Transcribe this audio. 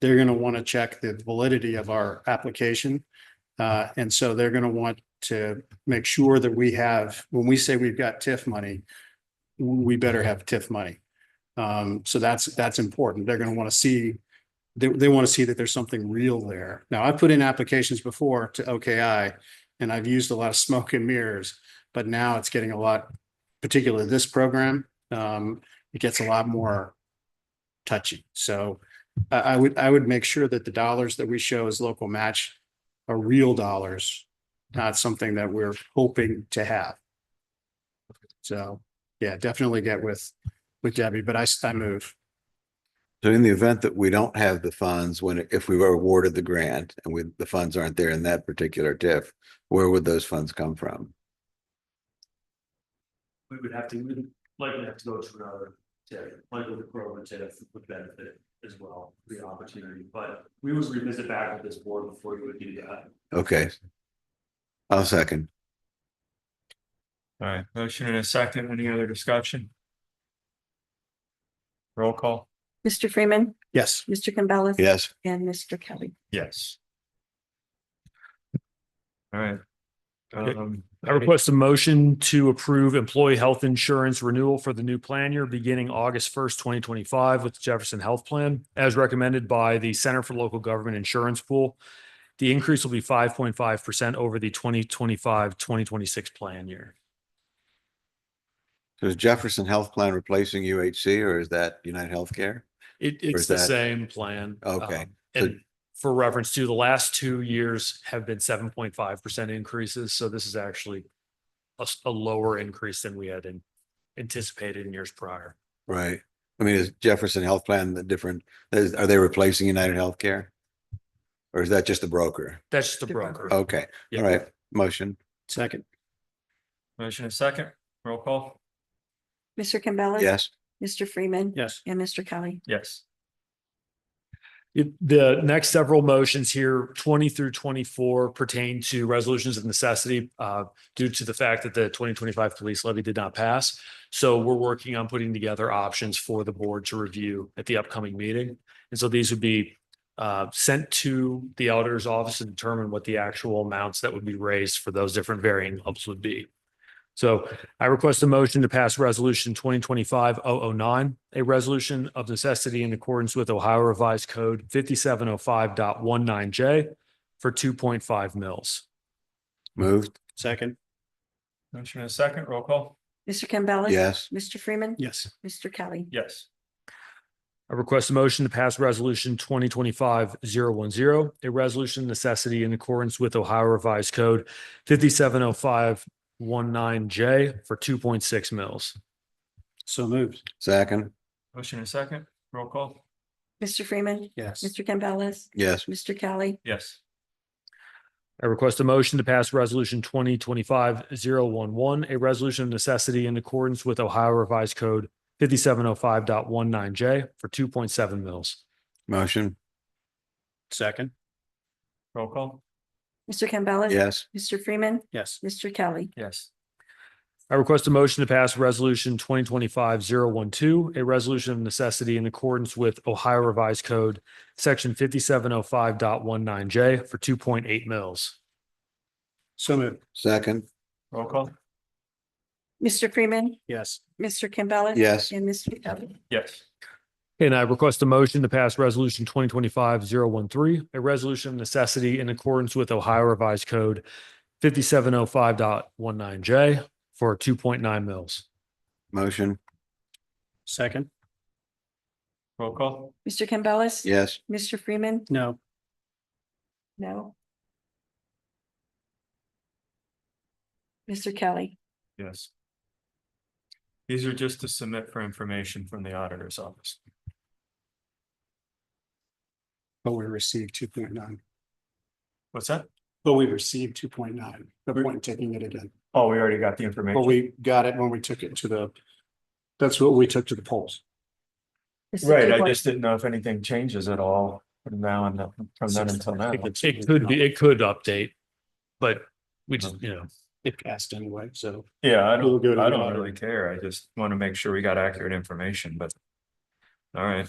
they're going to want to check the validity of our application. Uh, and so they're going to want to make sure that we have, when we say we've got TIF money, we better have TIF money. Um, so that's, that's important. They're going to want to see, they, they want to see that there's something real there. Now, I've put in applications before to OKI and I've used a lot of smoke and mirrors, but now it's getting a lot, particularly this program, um, it gets a lot more touchy. So I, I would, I would make sure that the dollars that we show as local match are real dollars, not something that we're hoping to have. So, yeah, definitely get with, with Debbie, but I, s- I move. So in the event that we don't have the funds, when, if we were awarded the grant and we, the funds aren't there in that particular TIF, where would those funds come from? we would have to, we would likely have to go to another TIF, likely the program TIF would benefit as well, the opportunity, but we would revisit back with this board before you would do that. Okay. I'll second. All right, motion and a second. Any other discussion? Roll call? Mr. Freeman, Yes. Mr. Campbell. Yes, And Mr. Kelly. Yes. All right. Okay. Um, I request a motion to approve employee health insurance renewal for the new plan year beginning August first, twenty twenty-five with Jefferson Health Plan as recommended by the Center for Local Government Insurance Pool. The increase will be five point five percent over the 2025-2026 plan year. so is Jefferson Health Plan replacing UHC or is that United Healthcare? It, it's is the that- same plan. Okay, um, so- And for reference to the last two years have been seven point five percent increases. So this is actually a, s- a lower increase than we had in- anticipated in years prior. Right. I mean, is Jefferson Health Plan the different, is, are they replacing United Healthcare? Or is that just the broker? That's just the The broker. broker. Okay, Yeah. Oh, all right, motion, Second. motion and a second. Roll call? Mr. Campbell. yes, Mr. Freeman. Yes. And Mr. Kelly. Yes. It- The next several motions here, twenty through twenty-four pertain to resolutions of necessity uh, due to the fact that the twenty twenty-five police levy did not pass. So we're working on putting together options for the board to review at the upcoming meeting. And so these would be uh, sent to the auditor's office to determine what the actual amounts that would be raised for those different varying ups would be. So I request a motion to pass Resolution 2025-009, a resolution of necessity in accordance with Ohio Revised Code 5705.19J for 2.5 mils. moved, Second. Motion and a second. Roll call? Mr. Campbell. yes, Mr. Freeman. Yes. Mr. Kelly. Yes. I request a motion to pass Resolution 2025-010, a resolution of necessity in accordance with Ohio Revised Code 5705.19J for 2.6 mils. So moved. second, Motion and a second. Roll call? Mr. Freeman. Yes. Mr. Campbell. yes, Mr. Kelly. Yes. I request a motion to pass Resolution 2025-011, a resolution of necessity in accordance with Ohio Revised Code 570519 J for two point seven mils. motion, Second. Roll call? Mr. Campbell. yes, Mr. Freeman. Yes. Mr. Kelly. Yes. I request a motion to pass Resolution 2025-012, a resolution of necessity in accordance with Ohio Revised Code, Section 570519 J for two point eight mils. So moved. second, Roll call? Mr. Freeman. Yes. Mr. Campbell. yes. And Mr. Kelly. Yes. And I request a motion to pass resolution 2025-013, a resolution of necessity in accordance with Ohio Revised Code 570519 J for two point nine mils. Motion, Second. Roll call? Mr. Campbell. yes, Mr. Freeman. No. No. Mr. Kelly. Yes. These are just to submit for information from the auditor's office. But we received two point nine. What's that? But we received two point nine, the point in taking it again. Oh, we already got the But information. we got it when we took it to the, that's what we took to the polls. Mr. Right, I Dubois. just didn't know if anything changes at all from now and from then until now. It could be, it could update, but we just, you know, It passed anyway, so. Yeah, I We'll go don't, to I the don't auditor. really care. I just want to make sure we got accurate information, but. All right,